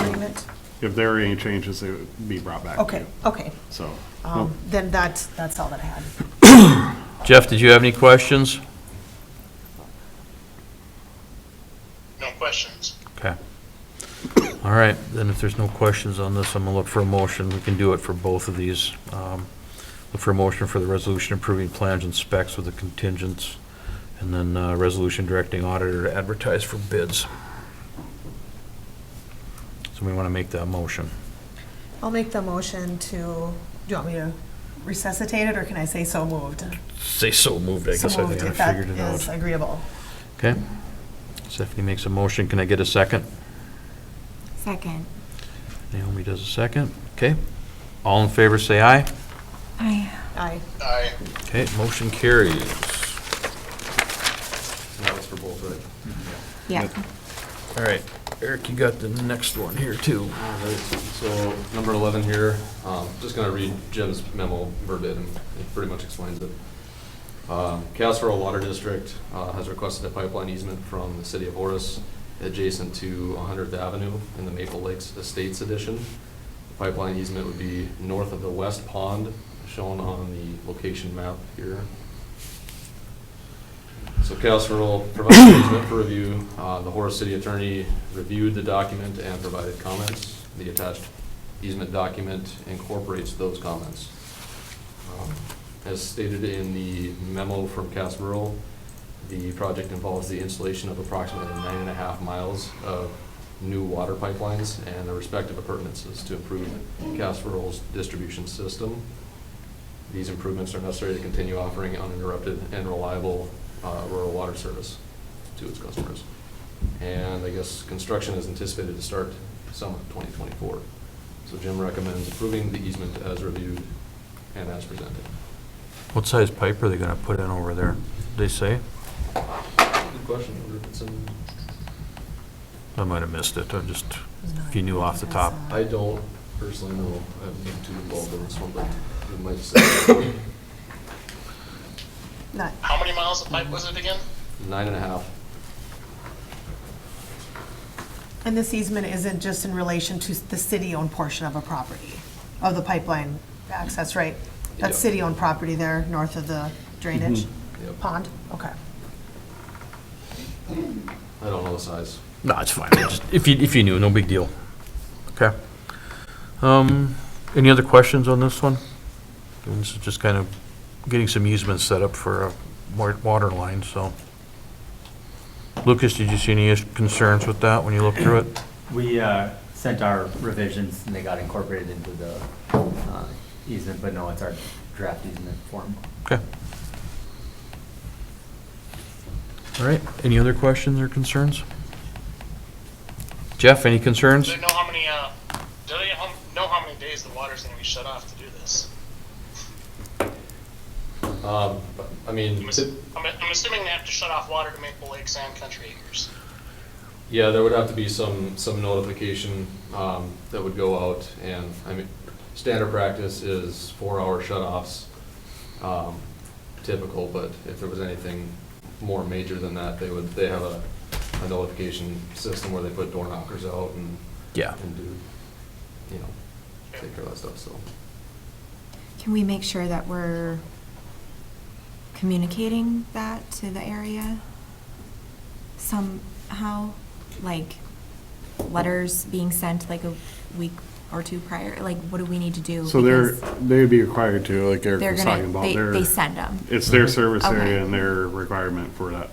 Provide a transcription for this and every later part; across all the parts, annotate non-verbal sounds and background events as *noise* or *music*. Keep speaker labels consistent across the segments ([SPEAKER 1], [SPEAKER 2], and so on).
[SPEAKER 1] comment?
[SPEAKER 2] If there are any changes, they would be brought back to
[SPEAKER 1] Okay,
[SPEAKER 2] you.
[SPEAKER 1] okay.
[SPEAKER 2] So,
[SPEAKER 1] Um, Then that's, that's all that I had.
[SPEAKER 3] Jeff, did you have any questions?
[SPEAKER 4] No questions.
[SPEAKER 3] Okay. All right, then if there's no questions on this, I'm gonna look for a motion. We can do it for both of these. Um, Look for a motion for the resolution approving plans and specs with the contingents, and then uh, resolution directing auditor to advertise for bids. So we want to make that motion.
[SPEAKER 1] I'll make the motion to, do you want me to resuscitate it, or can I say so moved?
[SPEAKER 3] Say so moved, I guess
[SPEAKER 1] So
[SPEAKER 3] I
[SPEAKER 1] moved,
[SPEAKER 3] think I
[SPEAKER 1] if that
[SPEAKER 3] figured it
[SPEAKER 1] is
[SPEAKER 3] out.
[SPEAKER 1] agreeable.
[SPEAKER 3] Okay. Stephanie makes a motion. Can I get a second?
[SPEAKER 5] Second.
[SPEAKER 3] Naomi does a second. Okay. All in favor, say aye.
[SPEAKER 5] I
[SPEAKER 1] Aye.
[SPEAKER 4] Aye.
[SPEAKER 3] Okay, motion carries.
[SPEAKER 6] That was for both, right?
[SPEAKER 5] Yeah.
[SPEAKER 3] All right, Eric, you got the next one here, too.
[SPEAKER 6] All right, So number 11 here, um, just going to read Jim's memo verbatim. It pretty much explains it. Uh, Chaos Rural Water District uh, has requested a pipeline easement from the city of Horace adjacent to 100th Avenue in the Maple Lakes Estates Edition. The Pipeline easement would be north of the west pond shown on the location map here. So Chaos Rural provided *coughs* an easement for review. Uh, The Horace City Attorney reviewed the document and provided comments. The attached easement document incorporates those comments. Um, As stated in the memo from Chaos Rural, the project involves the installation of approximately nine and a half miles of new water pipelines and their respective appurtenances to improve Chaos Rural's distribution system. These improvements are necessary to continue offering uninterrupted and reliable uh, rural water service to its customers. And I guess construction is anticipated to start summer 2024. So Jim recommends approving the easement as reviewed and as presented.
[SPEAKER 3] What size pipe are they gonna put in over there? They say?
[SPEAKER 6] Good question, I wonder if it's in-
[SPEAKER 3] I might have missed it, I just,
[SPEAKER 1] Who's not-
[SPEAKER 3] if you knew off the top.
[SPEAKER 6] I don't personally know, I haven't been too involved in this one, but it might say *coughs*
[SPEAKER 1] Not,
[SPEAKER 4] How many miles of pipe was it again?
[SPEAKER 6] nine and a half.
[SPEAKER 1] and this easement isn't just in relation to the city-owned portion of a property, of the pipeline access, right? That's
[SPEAKER 6] Yeah.
[SPEAKER 1] city-owned property there, north of the drainage
[SPEAKER 3] Mm-hmm.
[SPEAKER 6] Yep.
[SPEAKER 1] pond? Okay.
[SPEAKER 6] I don't know the size.
[SPEAKER 3] No, it's fine, I just- if you, if you knew, no big deal. Okay. Um, any other questions on this one? This is just kind of getting some easements set up for a wa- water line, so. Lucas, did you see any is- concerns with that when you looked through it?
[SPEAKER 7] We uh, sent our revisions and they got incorporated into the uh, easement, but no, it's our draft easement form.
[SPEAKER 3] Okay. All right, any other questions or concerns? Jeff, any concerns?
[SPEAKER 4] Do they know how many, uh, do they hum- know how many days the water's gonna be shut off to do this?
[SPEAKER 6] Um, I mean,
[SPEAKER 4] I'm, assu- I'm, I'm assuming they have to shut off water to Maple Lakes and Country Acres.
[SPEAKER 6] Yeah, there would have to be some, some notification um, that would go out, and, I mean, standard practice is four-hour shut-offs, um, typical, but if there was anything more major than that, they would, they have a a notification system where they put door knockers out and,
[SPEAKER 3] Yeah.
[SPEAKER 6] and do, you know, take care of that stuff, so.
[SPEAKER 5] Can we make sure that we're communicating that to the area somehow? Like letters being sent like a week or two prior? Like what do we need to do?
[SPEAKER 2] so they're,
[SPEAKER 5] Because
[SPEAKER 2] they'd be required to, like Eric
[SPEAKER 5] They're
[SPEAKER 2] was talking
[SPEAKER 5] gonna,
[SPEAKER 2] about,
[SPEAKER 5] they, they
[SPEAKER 2] their,
[SPEAKER 5] send them.
[SPEAKER 2] it's their service
[SPEAKER 5] Okay.
[SPEAKER 2] area and their requirement for that,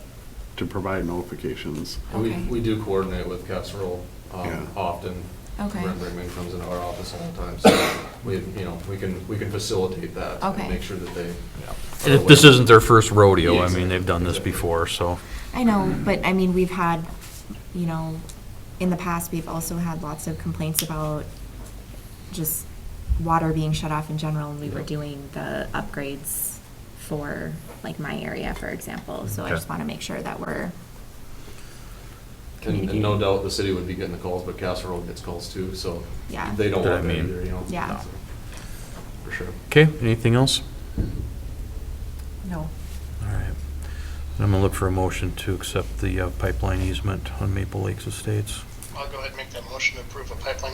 [SPEAKER 2] to provide notifications.
[SPEAKER 6] And We,
[SPEAKER 5] Okay.
[SPEAKER 6] we do coordinate with Casserole
[SPEAKER 2] Yeah.
[SPEAKER 6] um, often.
[SPEAKER 5] Okay.
[SPEAKER 6] Brent Brinkman comes into our office all the time, so we, you know, we can, we can facilitate that.
[SPEAKER 5] Okay.
[SPEAKER 6] And make sure that they.
[SPEAKER 3] And if This isn't their first rodeo, I mean, they've done this before, so.
[SPEAKER 5] I know, but I mean, we've had, you know, in the past, we've also had lots of complaints about just water being shut off in general, and we were
[SPEAKER 6] Yeah.
[SPEAKER 5] doing the upgrades for, like, my area, for example, so I
[SPEAKER 3] Okay.
[SPEAKER 5] just wanna make sure that we're
[SPEAKER 6] And and
[SPEAKER 5] communicating.
[SPEAKER 6] no doubt the city would be getting the calls, but Casserole gets calls too, so.
[SPEAKER 5] Yeah.
[SPEAKER 6] They don't
[SPEAKER 3] That I
[SPEAKER 6] want that
[SPEAKER 3] mean.
[SPEAKER 6] either, you know?
[SPEAKER 5] Yeah.
[SPEAKER 6] so, For sure.
[SPEAKER 3] Okay, anything else?
[SPEAKER 1] No.
[SPEAKER 3] All right. Then I'm gonna look for a motion to accept the uh, pipeline easement on Maple Lakes Estates.
[SPEAKER 4] I'll go ahead and make that motion to approve a pipeline